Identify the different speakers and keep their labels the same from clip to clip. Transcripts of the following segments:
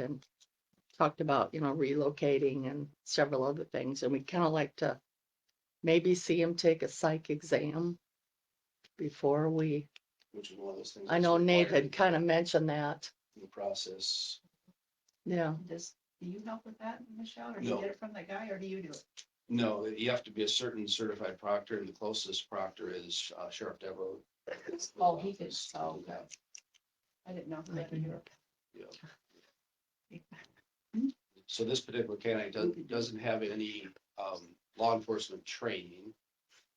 Speaker 1: and talked about, you know, relocating and several other things, and we kind of like to maybe see him take a psych exam before we,
Speaker 2: which is one of those things.
Speaker 1: I
Speaker 2: that's
Speaker 1: know Nate
Speaker 2: required
Speaker 1: had kind of mentioned that,
Speaker 2: in The process,
Speaker 1: yeah.
Speaker 3: Does, do you help with that, Michelle, or do
Speaker 2: No.
Speaker 3: you get it from the guy, or do you do it?
Speaker 2: no, you have to be a certain certified proctor, and the closest proctor is uh, Sheriff Devo.
Speaker 3: Oh, he did, so, okay. I didn't know. if
Speaker 1: I
Speaker 3: that
Speaker 1: can do
Speaker 3: or-
Speaker 1: it.
Speaker 2: So this particular candidate doesn't, doesn't have any um, law enforcement training.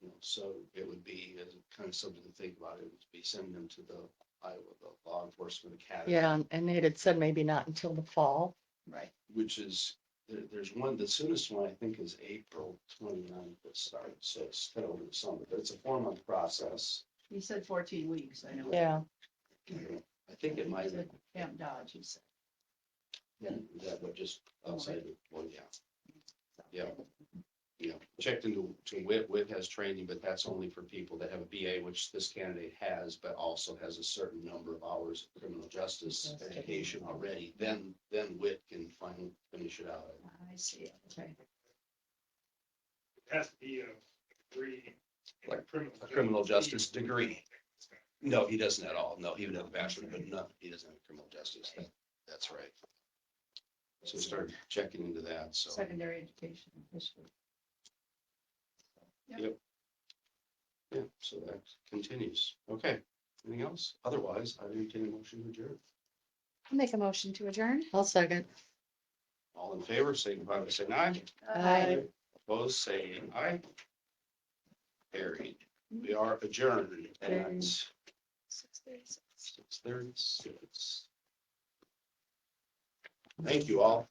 Speaker 2: you know, So it would be uh, kind of something to think about, it would be sending them to the Iowa the Law Enforcement Academy.
Speaker 1: Yeah, and- and Nate had said maybe not until the fall.
Speaker 3: Right,
Speaker 2: Which is, there, there's one, the soonest one I think is April 29th that starts, so it's kind of over the summer, but it's a four month process.
Speaker 3: you said fourteen weeks, I know.
Speaker 1: Yeah,
Speaker 2: I think it might,
Speaker 3: Is Camp Dodge, you said.
Speaker 2: yeah, that would just outside of, well, yeah,
Speaker 3: so.
Speaker 2: Yeah. yeah. Checked into, to WIT, WIT has training, but that's only for people that have a BA, which this candidate has, but also has a certain number of hours of criminal justice
Speaker 3: Yes.
Speaker 2: education already, then, then WIT can finally finish it out.
Speaker 3: I see, okay.
Speaker 4: It has to be a degree. in
Speaker 2: Like,
Speaker 4: criminal
Speaker 2: a criminal justice degree. No, he doesn't at all. No, he would have a bachelor, but no, he doesn't have criminal justice. That- That's right. So started checking into that, so.
Speaker 3: Secondary education official.
Speaker 2: Yeah, so that continues. Okay, anything else? Otherwise, I entertain a motion to adjourn.
Speaker 5: Make a motion to adjourn.
Speaker 1: I'll second.
Speaker 2: All in favor, signify by saying aye.
Speaker 1: Aye.
Speaker 2: Opposed, say aye. Carried. We are adjourned at
Speaker 1: Adjourned.
Speaker 2: six thirty-six. Thank you all.